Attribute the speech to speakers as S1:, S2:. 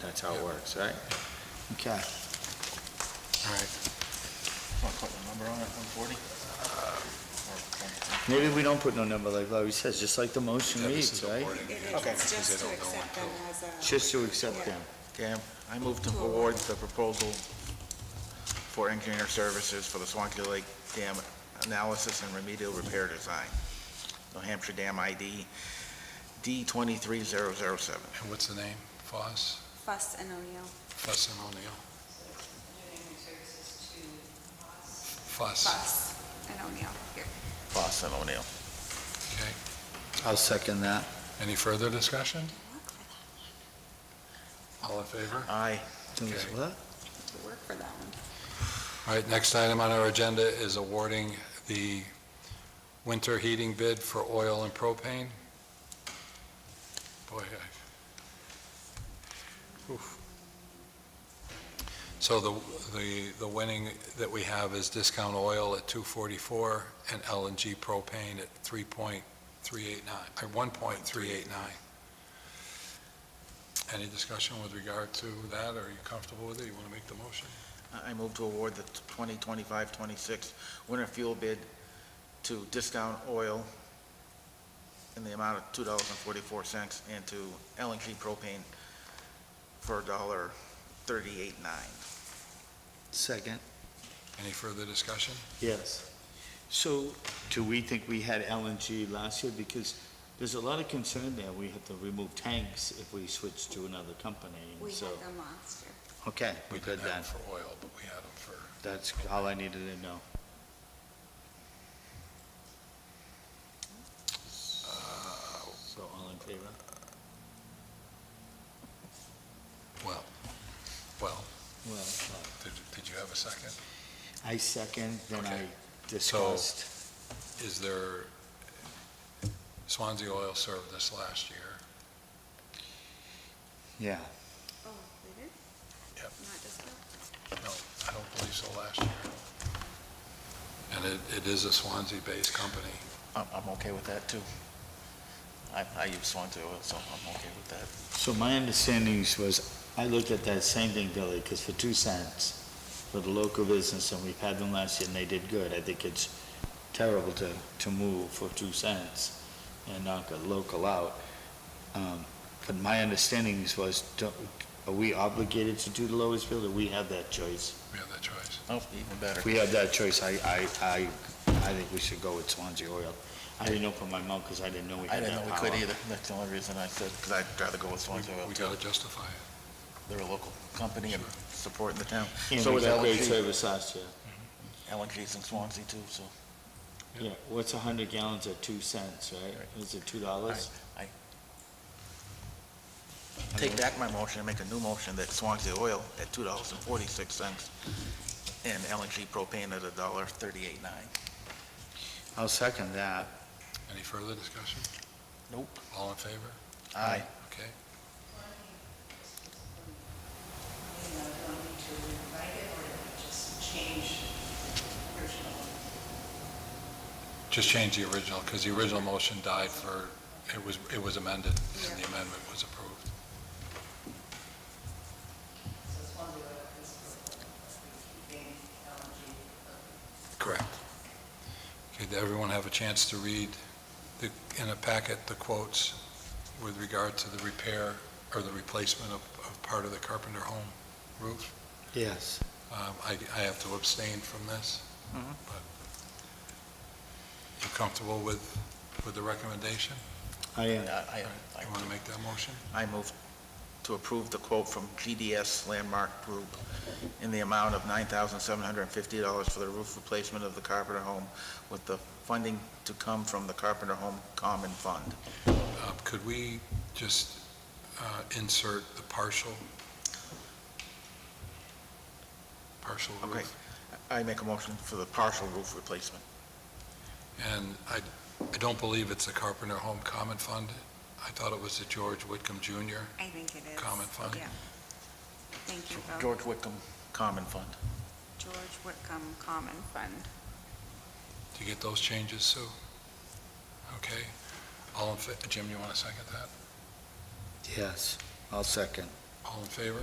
S1: That's how it works, right?
S2: Okay.
S3: Want to put the number on it, 140?
S2: Maybe we don't put no number like Larry says, just like the motion reads, right?
S4: It is,
S3: Okay.
S4: it's just to accept them as a.
S2: Just to accept them.
S3: Okay, I move to award the proposal for engineer services for the Swanky Lake Dam analysis and remedial repair design. New Hampshire Dam ID D23007.
S4: And what's the name? Foss?
S5: Fuss and O'Neill.
S4: Foss and O'Neill? Foss,
S5: Fuss and O'Neill. Here.
S3: Boston O'Neill.
S4: okay.
S2: I'll second that.
S4: Any further discussion?
S5: Work for that.
S4: All in favor?
S3: Aye.
S2: Think it's what?
S5: Work for that one.
S4: All right, next item on our agenda is awarding the winter heating bid for oil and propane. Boy, I... oof. So the, the, the winning that we have is discount oil at 244 and LNG propane at 3.389, uh, 1.389. Any discussion with regard to that? Are you comfortable with it? You want to make the motion?
S3: I- I move to award the 2025-26 winter fuel bid to Discount Oil in the amount of $2.44 and to LNG propane for $1.389.
S2: Second.
S4: Any further discussion?
S2: Yes. So, do we think we had LNG last year? Because there's a lot of concern there. We have to remove tanks if we switch to another company, and
S5: We
S2: so.
S5: had them last year.
S2: Okay, we
S4: did
S2: did that.
S4: For oil, but we had them for,
S2: That's all I needed to know.
S4: uh,
S2: So, all in favor?
S4: well, well,
S2: Well, uh,
S4: did, did you have a second?
S2: I second, then I
S4: Okay.
S2: discussed.
S4: Is there, Swansea Oil served this last year.
S2: Yeah,
S5: Oh, they did?
S4: Yep.
S5: Not just that?
S4: No, I don't believe so last year. And it, it is a Swansea-based company.
S3: I'm, I'm okay with that, too. I, I use Swansea oil, so I'm okay with that.
S2: so my understandings was, I looked at that same thing, Billy, because for two cents, for the local business, and we've had them last year, and they did good. I think it's terrible to, to move for two cents and knock a local out. Um, But my understandings was, don't- are we obligated to do the lowest bid, or we have that choice?
S4: We have that choice.
S3: Oh, even better.
S2: If we have that choice, I, I, I, I think we should go with Swansea Oil. I didn't open my mouth, because I didn't know we
S3: I
S2: had
S3: didn't know
S2: that
S3: we
S2: power.
S3: could either. That's the only reason I said, because I'd rather go with Swansea oil,
S4: We
S3: too.
S4: gotta justify it.
S3: They're a local company and supporting the town.
S2: And
S3: So
S2: we
S3: is
S2: got great
S3: LNG.
S2: service last year.
S3: LNG's in Swansea, too, so.
S2: Yeah, what's a hundred gallons at two cents, right? Is it two dollars?
S3: Take back my motion and make a new motion that Swansea Oil at two dollars and forty-six cents and LNG propane at a dollar thirty-eight nine.
S2: I'll second that.
S4: Any further discussion?
S3: Nope.
S4: All in favor?
S3: Aye.
S4: Okay.
S6: you know, do I need to rewrite it or just change the original?
S4: Just change the original, because the original motion died for, it was, it was amended, and the
S5: Yeah.
S4: amendment was approved.
S6: So it's one of the principles of keeping LNG
S4: Correct. Okay, did everyone have a chance to read the, in a packet, the quotes with regard to the repair or the replacement of, of part of the Carpenter Home roof?
S2: Yes.
S4: Um, I, I have to abstain from this,
S3: Mhm.
S4: but you comfortable with, with the recommendation?
S2: I am.
S3: I,
S4: You want to make that motion?
S3: I move to approve the quote from GDS Landmark Group in the amount of nine thousand seven hundred and fifty dollars for the roof replacement of the Carpenter Home with the funding to come from the Carpenter Home Common Fund.
S4: Uh, Could we just uh, insert the partial? Partial roof?
S3: Okay. I make a motion for the partial roof replacement.
S4: And I, I don't believe it's the Carpenter Home Common Fund. I thought it was the George Whitcomb Jr.
S5: I think it is.
S4: Common fund.
S5: Yeah. Thank you, Bill.
S3: George Wickham Common Fund.
S5: George Whitcomb Common Fund.
S4: Do you get those changes, Sue? Okay. All in, fa- Jim, you want to second that?
S2: Yes, I'll second.
S4: All in favor?